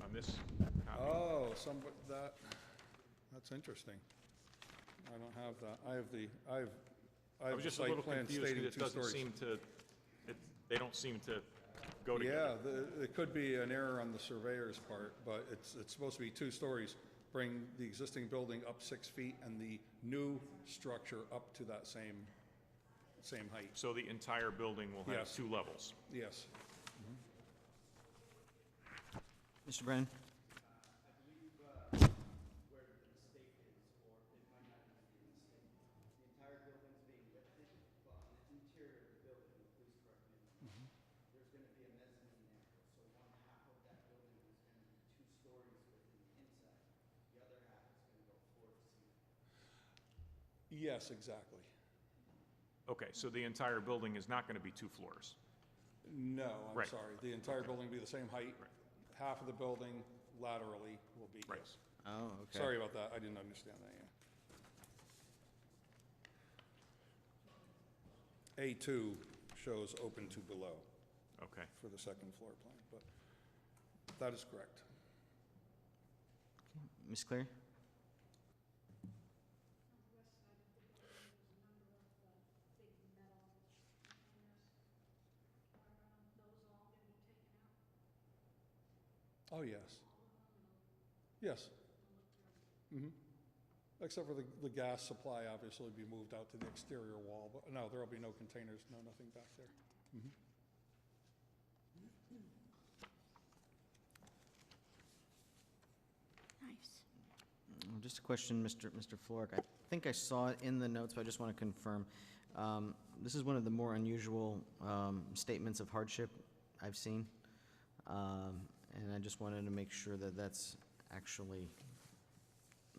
uh, this copy. Oh, some, that, that's interesting. I don't have that. I have the, I have, I I have was the just a site little plan confused stating because it two doesn't stories. seem to, it- they don't seem to go together. Yeah, the- it could be an error on the surveyor's part, but it's, it's supposed to be two stories. Bring the existing building up six feet and the new structure up to that same, same height. So the entire building will have Yes. two levels. Yes. Mr. Brennan? where the mistake is, or it might not even be a mistake. The entire building's being lifted, but on the interior of the building, please correct me, if I'm wrong, there's gonna be a mezzanine there, so one half of that building is gonna be two stories within the inside, the other half is gonna go floor to ceiling. Yes, exactly. Okay, so the entire building is not going to be two floors. No, Right. I'm sorry. The entire building will be the same height. Half of the building laterally will be, Right. yes. Oh, okay. Sorry about that. I didn't understand that, yeah. A2 shows open to below Okay, for the second floor plan, but that is correct. Ms. Cleary? Oh, yes. Yes. Mhm. Except for the, the gas supply obviously will be moved out to the exterior wall, but no, there'll be no containers, no nothing back there. Nice. Mm, Just a question, Mr. Mr. Florek. I think I saw it in the notes, but I just want to confirm. Um, This is one of the more unusual um, statements of hardship I've seen, Um, and I just wanted to make sure that that's actually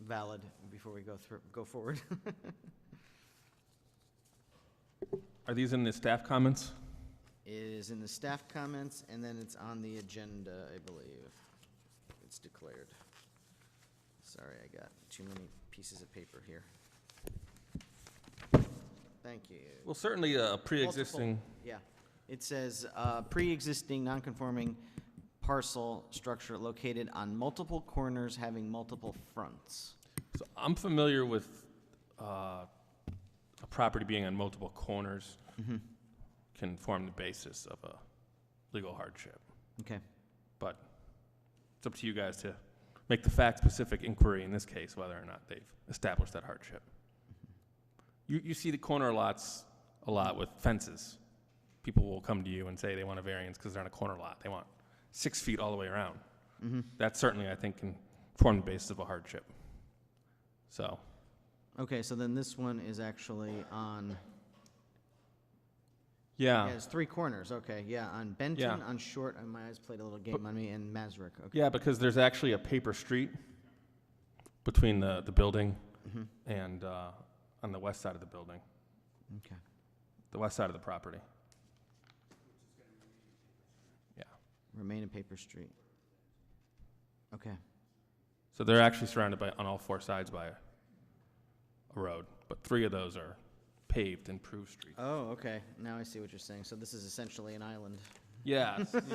valid before we go through, go forward. Are these in the staff comments? It is in the staff comments, and then it's on the agenda, I believe. It's declared. Sorry, I got too many pieces of paper here. Thank you. Well, certainly uh, a pre-existing, Multiple- Yeah. It says, uh, pre-existing non-conforming parcel structure located on multiple corners having multiple fronts. so I'm familiar with uh, a property being on multiple corners can form the basis of a legal hardship. Okay. But it's up to you guys to make the fact-specific inquiry in this case, whether or not they've established that hardship. You, you see the corner lots a lot with fences. People will come to you and say they want a variance because they're on a corner lot. They want six feet all the way around. That certainly, I think, can form the basis of a hardship. So, Okay, so then this one is actually on, yeah, yeah, it's three corners, okay, yeah, on Benton, Oh. Yeah. on Short, and my eyes played a little game on me, and Masrick, okay. yeah, because there's actually a paper street between the, the building and, uh, on the west side of the building. Okay. the west side of the property. Yeah. Remain in Paper Street. Okay. So they're actually surrounded by, on all four sides by a road, but three of those are paved, improved streets. Oh, okay. Now I see what you're saying. So this is essentially an island. Yes. Okay.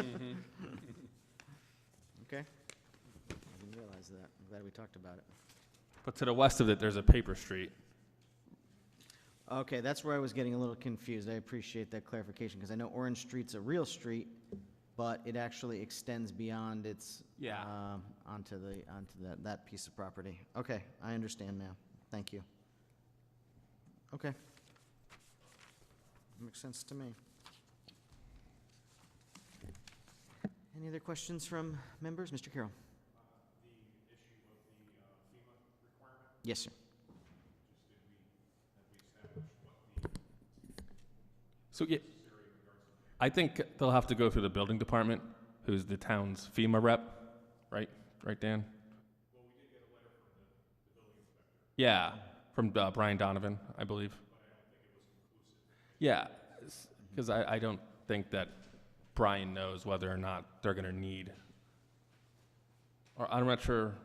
I didn't realize that. I'm glad we talked about it. But to the west of it, there's a paper street. Okay, that's where I was getting a little confused. I appreciate that clarification because I know Orange Street's a real street, but it actually extends beyond its Yeah. um, onto the onto that that piece of property. Okay, I understand now. Thank you. Okay, makes sense to me. Any other questions from members, Mr. Carroll? The issue of the uh, FEMA requirement. Yes, sir. So, yeah, I think they'll have to go through the building department, who's the town's FEMA rep, right? Right, Dan? Well, we did get a letter from the, the building inspector. Yeah, from uh, Brian Donovan, I believe. Yeah, because I, I don't think that Brian knows whether or not they're going to need, or I'm not sure